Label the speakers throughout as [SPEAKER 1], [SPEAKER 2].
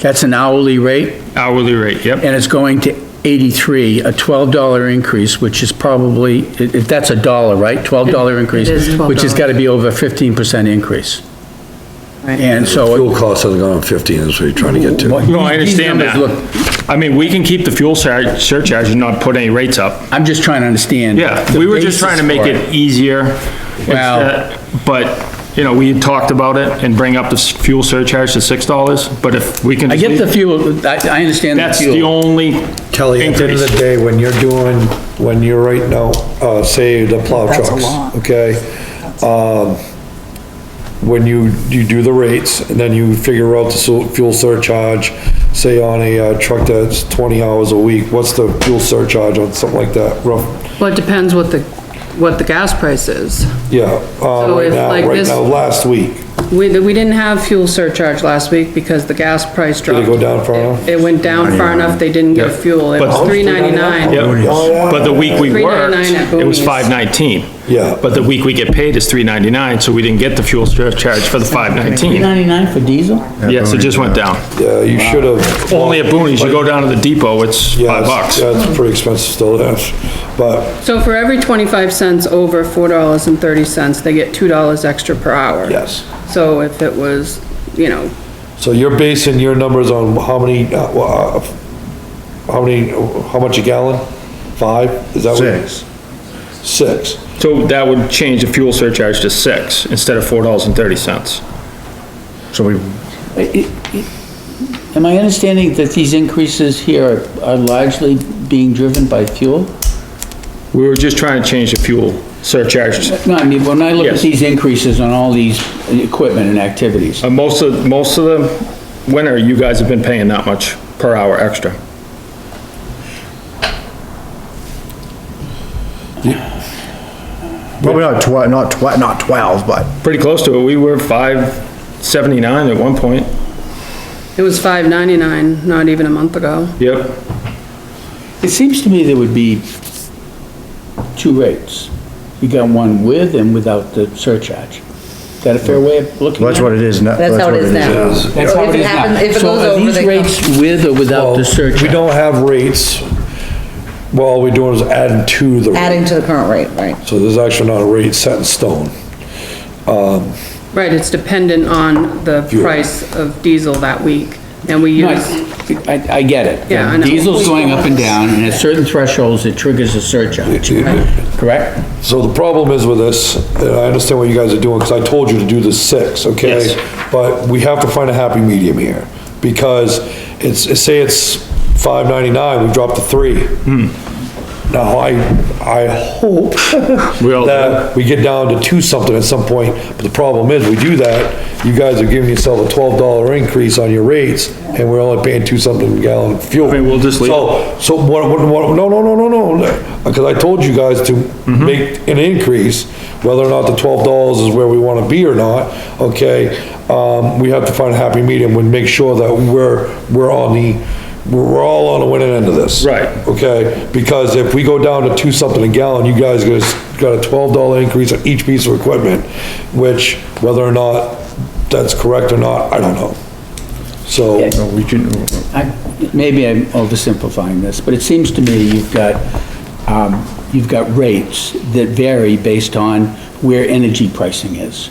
[SPEAKER 1] That's an hourly rate,
[SPEAKER 2] Hourly rate, yep.
[SPEAKER 1] and it's going to 83, a $12 increase, which is probably, i- if that's a dollar, right? $12 increase?
[SPEAKER 3] is
[SPEAKER 1] Which has
[SPEAKER 3] $12.
[SPEAKER 1] gotta be over 15% increase.
[SPEAKER 3] Right.
[SPEAKER 1] And so.
[SPEAKER 4] Fuel costs have gone up 15, is what you're trying to get to.
[SPEAKER 2] No, I understand that. I mean, we can keep the fuel sur- surcharge and not put any rates up.
[SPEAKER 1] I'm just trying to understand.
[SPEAKER 2] Yeah,
[SPEAKER 1] the
[SPEAKER 2] we were just
[SPEAKER 1] basis
[SPEAKER 2] trying to make
[SPEAKER 1] for
[SPEAKER 2] it easier.
[SPEAKER 1] Well-
[SPEAKER 2] instead- But, you know, we had talked about it and bring up the s- fuel surcharge to six dollars, but if we can.
[SPEAKER 1] I get the
[SPEAKER 2] just-
[SPEAKER 1] fuel, I, I understand the
[SPEAKER 2] That's the
[SPEAKER 1] fuel.
[SPEAKER 2] only.
[SPEAKER 4] Kelly, at the end of the
[SPEAKER 2] increase.
[SPEAKER 4] day, when you're doing, when you're right now, uh, say the plow
[SPEAKER 3] That's a
[SPEAKER 4] trucks,
[SPEAKER 3] lot.
[SPEAKER 4] okay? Um, when you, you do the rates, and then you figure out the su- fuel surcharge, say on a uh, truck that's twenty hours a week, what's the fuel surcharge on something like that, rough?
[SPEAKER 3] Well, it depends what the, what the gas price is.
[SPEAKER 4] Yeah, uh,
[SPEAKER 3] So
[SPEAKER 4] right
[SPEAKER 3] if,
[SPEAKER 4] now,
[SPEAKER 3] like,
[SPEAKER 4] right
[SPEAKER 3] this-
[SPEAKER 4] now, last week,
[SPEAKER 3] We, we didn't have fuel surcharge last week because the gas price
[SPEAKER 4] did it
[SPEAKER 3] dropped.
[SPEAKER 4] go down far enough?
[SPEAKER 3] It went down far enough, they didn't get
[SPEAKER 2] Yeah.
[SPEAKER 3] fuel. It was
[SPEAKER 2] But-
[SPEAKER 3] three ninety-nine.
[SPEAKER 2] Yep.
[SPEAKER 4] Oh, yeah.
[SPEAKER 2] But the week we worked,
[SPEAKER 3] $3.99 at
[SPEAKER 2] it was
[SPEAKER 3] Boonies.
[SPEAKER 2] five nineteen.
[SPEAKER 4] Yeah.
[SPEAKER 2] But the week we get paid is three ninety-nine, so we didn't get the fuel surcharge for the five nineteen.
[SPEAKER 5] 99 for diesel?
[SPEAKER 2] Yes, it just went down.
[SPEAKER 4] Yeah, you should have.
[SPEAKER 2] Only at Boonies, you go down to the depot, it's
[SPEAKER 4] Yeah,
[SPEAKER 2] five bucks.
[SPEAKER 4] That's pretty expensive still, yes, but,
[SPEAKER 3] So for every twenty-five cents over four dollars and thirty cents, they get two dollars extra per hour.
[SPEAKER 4] yes.
[SPEAKER 3] So if it was, you know,
[SPEAKER 4] So you're basing your numbers on how many, uh, wha- how many, how much a gallon? Five? Is that what?
[SPEAKER 6] Six.
[SPEAKER 4] Six.
[SPEAKER 2] So that would change the fuel surcharge to six instead of four dollars and thirty cents.
[SPEAKER 6] So we,
[SPEAKER 5] Am I understanding that these increases here are largely being driven by fuel?
[SPEAKER 2] We were just trying to change the fuel surcharge.
[SPEAKER 5] No, I mean, when I look at
[SPEAKER 2] Yes.
[SPEAKER 5] these increases on all these equipment and activities,
[SPEAKER 2] Uh, most of, most of the winter, you guys have been paying that much per hour extra.
[SPEAKER 6] probably not tw- not tw- not twelve, but
[SPEAKER 2] Pretty close to it. We were five seventy-nine at one point.
[SPEAKER 3] it was five ninety-nine, not even a month ago.
[SPEAKER 2] Yep.
[SPEAKER 5] it seems to me there would be two rates. You got one with and without the surcharge. Is that a fair way of looking
[SPEAKER 6] that's
[SPEAKER 5] at
[SPEAKER 6] what
[SPEAKER 5] it?
[SPEAKER 6] it is now.
[SPEAKER 7] That's how it is now.
[SPEAKER 5] That's how
[SPEAKER 7] If
[SPEAKER 5] it
[SPEAKER 7] it
[SPEAKER 5] is now.
[SPEAKER 7] happens- if it goes over, they
[SPEAKER 5] So are these
[SPEAKER 7] come.
[SPEAKER 5] rates with or without
[SPEAKER 4] Well,
[SPEAKER 5] the surcharge?
[SPEAKER 4] We don't have rates. Well, all we're doing is adding to the. rate.
[SPEAKER 7] adding to the current rate, right?
[SPEAKER 4] So there's actually not a rate set in stone.
[SPEAKER 3] Right, it's dependent on the
[SPEAKER 4] Fuel.
[SPEAKER 3] price of diesel that week, and we
[SPEAKER 5] No,
[SPEAKER 3] use,
[SPEAKER 5] I, I- I get it.
[SPEAKER 3] Yeah, I know.
[SPEAKER 5] Diesel's going up and down, and at certain thresholds, it triggers a surcharge, correct?
[SPEAKER 4] So the problem is with this, and I understand what you guys are doing, because I told you to do the six, okay?
[SPEAKER 2] Yes.
[SPEAKER 4] But we have to find a happy medium here, because it's, say it's five ninety-nine, we dropped to three.
[SPEAKER 2] Hmm.
[SPEAKER 4] Now, I, I hope
[SPEAKER 2] We all do.
[SPEAKER 4] that we get down to two something at some point, but the problem is, we do that, you guys are giving yourself a twelve dollar increase on your rates, and we're only paying two something a gallon of fuel.
[SPEAKER 2] I mean, we'll just leave it.
[SPEAKER 4] So, so what, what, what, no, no, no, no, no, because I told you guys to make an increase, whether or not the twelve dollars is where we wanna be or not, okay? Um, we have to find a happy medium and make sure that we're, we're on the, we're, we're all on the winning end of this.
[SPEAKER 2] Right.
[SPEAKER 4] Okay, because if we go down to two something a gallon, you guys got a- got a twelve dollar increase on each piece of equipment, which, whether or not that's correct or not, I don't know. So,
[SPEAKER 6] No, we can,
[SPEAKER 5] I- Maybe I'm oversimplifying this, but it seems to me you've got, um, you've got rates that vary based on where energy pricing is.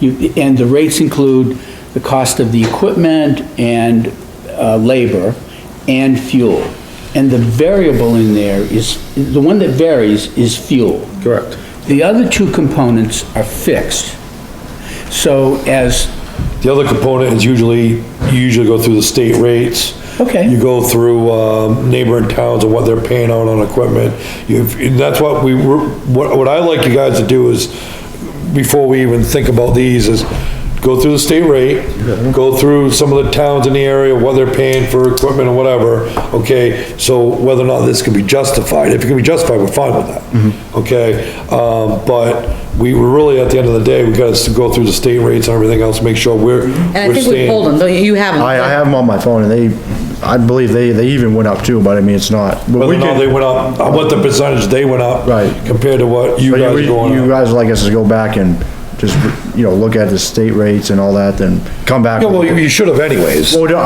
[SPEAKER 5] You, and the rates include the cost of the equipment and, uh, labor and fuel. And the variable in there is, the one that varies is fuel.
[SPEAKER 2] Correct.
[SPEAKER 5] The other two components are fixed. So as
[SPEAKER 4] the other component is usually, you usually go through the state rates.
[SPEAKER 5] Okay.
[SPEAKER 4] You go through, um, neighboring towns and what they're paying out on equipment. You, and that's what we, were- what, what I like you guys to do is, before we even think about these, is go through the state rate, go through some of the towns in the area, what they're paying for equipment or whatever, okay? So whether or not this can be justified, if it can be justified, we're fine with that, okay? Um, but we were really, at the end of the day, we got to go through the state rates and everything else, make sure we're,
[SPEAKER 7] And I
[SPEAKER 4] we're
[SPEAKER 7] think we pulled
[SPEAKER 4] staying.
[SPEAKER 7] them, though you have them.
[SPEAKER 6] I, I have them on my phone and they, I believe they, they even went up too, but I mean, it's not. but we
[SPEAKER 4] Whether or
[SPEAKER 6] can-
[SPEAKER 4] not they went up, uh, what the percentage they went up.
[SPEAKER 6] Right.
[SPEAKER 4] Compared to what you
[SPEAKER 6] But
[SPEAKER 4] guys are
[SPEAKER 6] you, you
[SPEAKER 4] going up.
[SPEAKER 6] guys like us to go back and just, you know, look at the state rates and all that, then come back.
[SPEAKER 4] Yeah, well, you you should have anyways.
[SPEAKER 6] Well,